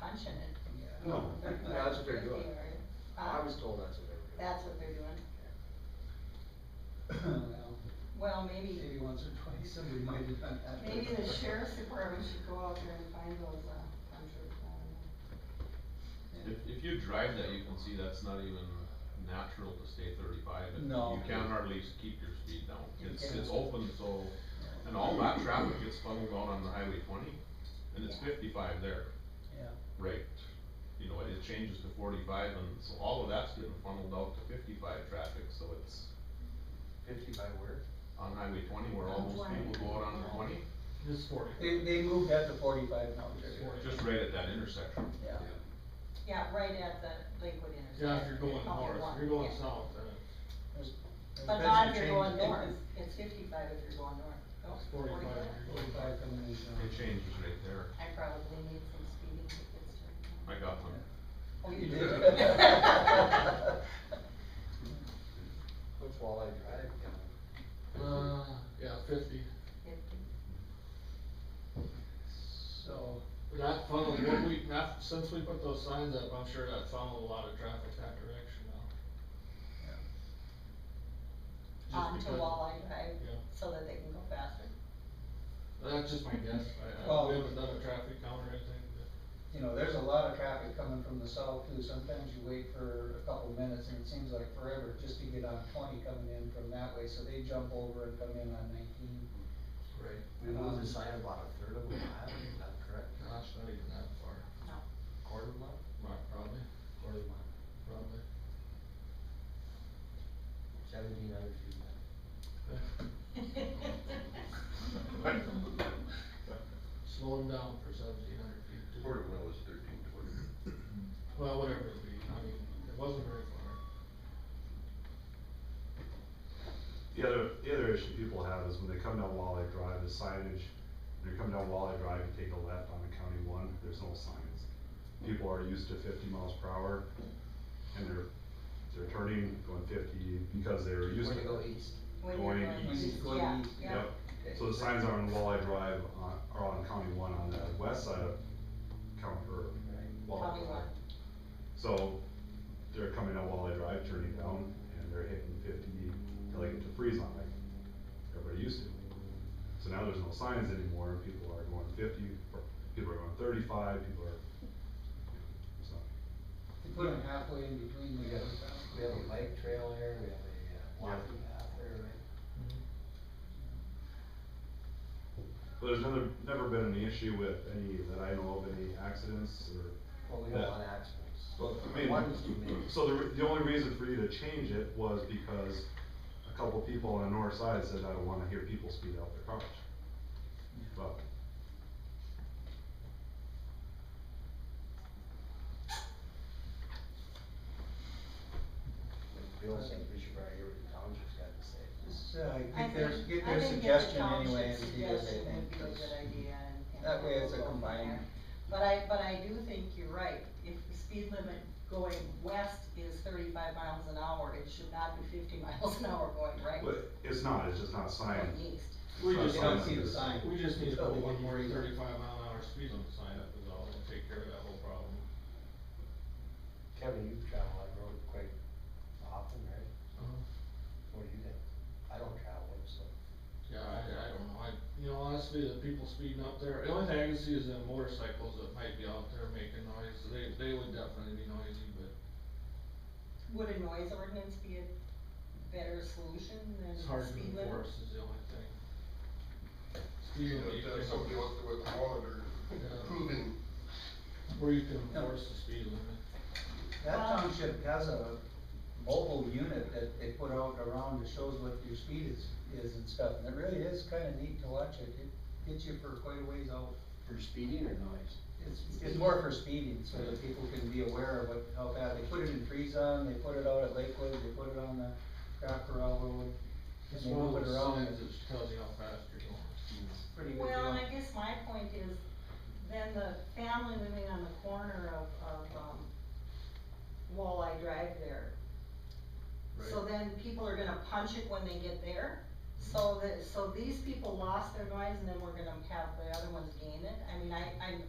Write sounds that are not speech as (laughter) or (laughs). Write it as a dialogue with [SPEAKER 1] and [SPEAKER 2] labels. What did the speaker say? [SPEAKER 1] punching it.
[SPEAKER 2] No, (laughs) that's what they're doing. I
[SPEAKER 1] Huh?
[SPEAKER 2] was told that's what they
[SPEAKER 1] That's what they're doing.
[SPEAKER 3] Well,
[SPEAKER 1] Well, maybe,
[SPEAKER 3] Maybe once or twice, somebody might have done that.
[SPEAKER 1] maybe the sheriff's department should go out there and find those, uh, punchers, I don't know.
[SPEAKER 4] If, if you drive that, you can see that's not even natural to stay thirty-five, and
[SPEAKER 3] No.
[SPEAKER 4] you can hardly s- keep your speed down.
[SPEAKER 3] You
[SPEAKER 4] It's,
[SPEAKER 3] can't.
[SPEAKER 4] it's open, so, and all that traffic gets funneled out on the highway twenty, and it's
[SPEAKER 1] Yeah.
[SPEAKER 4] fifty-five there,
[SPEAKER 3] Yeah,
[SPEAKER 4] right? You know, it changes to forty-five, and so all of that's getting funneled out to fifty-five traffic, so it's
[SPEAKER 2] were. Fifty by where?
[SPEAKER 4] on highway twenty where all
[SPEAKER 1] On
[SPEAKER 4] those
[SPEAKER 1] 20.
[SPEAKER 4] people go out on
[SPEAKER 1] Yeah.
[SPEAKER 4] twenty,
[SPEAKER 5] This is forty.
[SPEAKER 3] they, they moved that to forty-five now,
[SPEAKER 5] It's
[SPEAKER 3] Jerry.
[SPEAKER 5] 40.
[SPEAKER 4] just right at that intersection.
[SPEAKER 3] yeah.
[SPEAKER 1] Yeah, right at the Lakewood intersection.
[SPEAKER 5] Yeah, if you're going
[SPEAKER 1] Probably
[SPEAKER 5] north,
[SPEAKER 1] one,
[SPEAKER 5] if you're going
[SPEAKER 1] yeah.
[SPEAKER 5] south, then
[SPEAKER 3] There's- there's
[SPEAKER 1] But
[SPEAKER 3] been
[SPEAKER 1] not
[SPEAKER 3] some
[SPEAKER 1] if you're
[SPEAKER 3] change.
[SPEAKER 1] going north, it's fifty-five if you're going north. Oh, No,
[SPEAKER 5] it's forty-five. if you're going
[SPEAKER 3] Forty-five coming in,
[SPEAKER 4] It
[SPEAKER 3] so.
[SPEAKER 4] changes right there.
[SPEAKER 1] I probably need some speeding tickets to. (laughs)
[SPEAKER 4] I got them.
[SPEAKER 1] Oh,
[SPEAKER 3] You
[SPEAKER 1] you
[SPEAKER 3] did.
[SPEAKER 1] do?
[SPEAKER 2] What's walleye drive? you
[SPEAKER 5] south. Uh, yeah, fifty.
[SPEAKER 1] (laughs) Fifty.
[SPEAKER 3] So,
[SPEAKER 5] But That funnel, what we, that, since we put those signs up, I'm sure that funneled a lot of traffic that direction now. Just
[SPEAKER 1] On Um, to
[SPEAKER 5] because-
[SPEAKER 1] Walleye Drive,
[SPEAKER 5] Yeah.
[SPEAKER 1] so that they can go faster.
[SPEAKER 5] That's just my guess, I, I,
[SPEAKER 3] Well-
[SPEAKER 5] we haven't done a traffic count or anything, but,
[SPEAKER 3] you know, there's a lot of traffic coming from the south too, sometimes you wait for a couple minutes and it seems like forever just to get on twenty coming in from that way, so they jump over and come in on nineteen.
[SPEAKER 2] know? We moved the sign about a third of a mile, is that correct?
[SPEAKER 5] gosh, not even that far.
[SPEAKER 1] No.
[SPEAKER 2] Quarter of a mile?
[SPEAKER 5] Right, probably,
[SPEAKER 2] Quarter of a mile.
[SPEAKER 5] probably.
[SPEAKER 2] Seventeen hundred feet.
[SPEAKER 5] Slow them down for seventeen hundred feet. too.
[SPEAKER 6] Quarter mile is thirteen twenty.
[SPEAKER 5] Well, whatever it be, I mean, it wasn't very far.
[SPEAKER 7] The other, the other issue people have is when they come down Walleye Drive, the signage, when you're coming down Walleye Drive, you take a left on the County One, there's no signs. People are used to fifty miles per hour, and they're, they're turning, going fifty, because they're used
[SPEAKER 2] When
[SPEAKER 7] to.
[SPEAKER 2] you go east.
[SPEAKER 1] When you're
[SPEAKER 7] Going
[SPEAKER 1] going
[SPEAKER 7] east.
[SPEAKER 1] east,
[SPEAKER 3] Going
[SPEAKER 1] yeah,
[SPEAKER 3] east.
[SPEAKER 1] yeah.
[SPEAKER 7] Yep, so the signs are on Walleye Drive, on, are on County One on the west side of County, or Walleye
[SPEAKER 1] Probably
[SPEAKER 7] Drive.
[SPEAKER 1] one.
[SPEAKER 7] So they're coming out while I drive, turning down, and they're hitting fifty till they get to freeze on like everybody used to. So now there's no signs anymore, people are going fifty, or people are going thirty-five, people are, so.
[SPEAKER 3] You put them halfway in between
[SPEAKER 2] We
[SPEAKER 3] the
[SPEAKER 2] got,
[SPEAKER 3] other towns.
[SPEAKER 2] we have a bike trail here, we have a uh, walking path there, right?
[SPEAKER 7] But there's never, never been any issue with any, that I know of, any accidents or
[SPEAKER 2] Well, we got
[SPEAKER 7] Yeah.
[SPEAKER 2] one accidents.
[SPEAKER 7] Well, I mean,
[SPEAKER 2] One's too many.
[SPEAKER 7] so the, re- the only reason for you to change it was because a couple people on the north side said, I don't wanna hear people speed out their cars. But.
[SPEAKER 2] Bill said we should probably hear what the township's got to say.
[SPEAKER 3] Just, uh,
[SPEAKER 1] I
[SPEAKER 3] get their,
[SPEAKER 1] think-
[SPEAKER 3] get
[SPEAKER 1] I
[SPEAKER 3] their
[SPEAKER 1] think the
[SPEAKER 3] suggestion
[SPEAKER 1] township
[SPEAKER 3] anyway and see what they
[SPEAKER 1] suggestion
[SPEAKER 3] think.
[SPEAKER 1] would be a
[SPEAKER 3] 'cause
[SPEAKER 1] good idea and- and
[SPEAKER 3] That way it's a
[SPEAKER 1] we'll go from
[SPEAKER 3] combined.
[SPEAKER 1] there. But I, but I do think you're right, if the speed limit going west is thirty-five miles an hour, it should not be fifty (laughs) miles an hour going right.
[SPEAKER 7] But it's not, it's just not signed.
[SPEAKER 1] Going east.
[SPEAKER 7] it's
[SPEAKER 5] We
[SPEAKER 7] not
[SPEAKER 5] just
[SPEAKER 3] They
[SPEAKER 7] signed
[SPEAKER 3] don't see
[SPEAKER 7] on
[SPEAKER 3] the
[SPEAKER 7] this.
[SPEAKER 3] sign.
[SPEAKER 5] Mm-hmm. Oh, We just need to
[SPEAKER 3] So
[SPEAKER 5] put
[SPEAKER 3] they
[SPEAKER 5] one
[SPEAKER 3] get
[SPEAKER 5] more
[SPEAKER 3] worried.
[SPEAKER 5] thirty-five mile an hour speed limit sign up is all, and take care of that whole problem.
[SPEAKER 2] Kevin, you travel that road quite often, right?
[SPEAKER 5] Uh-huh.
[SPEAKER 2] What do you think? I don't travel it, so.
[SPEAKER 5] Yeah, I, I don't know, I, you know, honestly, the people speeding up there, the only thing I can see is the motorcycles that might be out there making noise, they, they would definitely be noisy, but
[SPEAKER 1] Would a noise ordinance be a better solution than
[SPEAKER 5] it's hard to
[SPEAKER 1] speed limit?
[SPEAKER 5] enforce is the only thing.
[SPEAKER 6] You
[SPEAKER 5] Speed
[SPEAKER 6] know,
[SPEAKER 5] limit, you
[SPEAKER 6] if
[SPEAKER 5] can-
[SPEAKER 6] somebody wants to with a monitor
[SPEAKER 5] Yeah.
[SPEAKER 6] proving
[SPEAKER 5] where you can
[SPEAKER 3] No.
[SPEAKER 5] enforce the speed limit.
[SPEAKER 3] That
[SPEAKER 1] Well-
[SPEAKER 3] township has a mobile unit that they put out around that shows what your speed is, is and stuff, and it really is kinda neat to watch it, it gets you for quite a ways out.
[SPEAKER 2] For speeding or noise?
[SPEAKER 3] It's, it's more for speeding, so that people can be aware of what, how bad, they put it in Treason, they put it out at Lakewood, they put it on the Craft Corral Road. and
[SPEAKER 5] It's
[SPEAKER 3] they
[SPEAKER 5] one of
[SPEAKER 3] move it
[SPEAKER 5] those
[SPEAKER 3] around.
[SPEAKER 5] signs that tells you how fast you're going.
[SPEAKER 3] It's pretty good
[SPEAKER 1] Well, and
[SPEAKER 3] deal.
[SPEAKER 1] I guess my point is, then the family living on the corner of, of, um, Walleye Drive there. So then people are gonna punch it when they get there,
[SPEAKER 5] Mm-hmm.
[SPEAKER 1] so that, so these people lost their noise, and then we're gonna have the other ones gain it, I mean, I, I'm,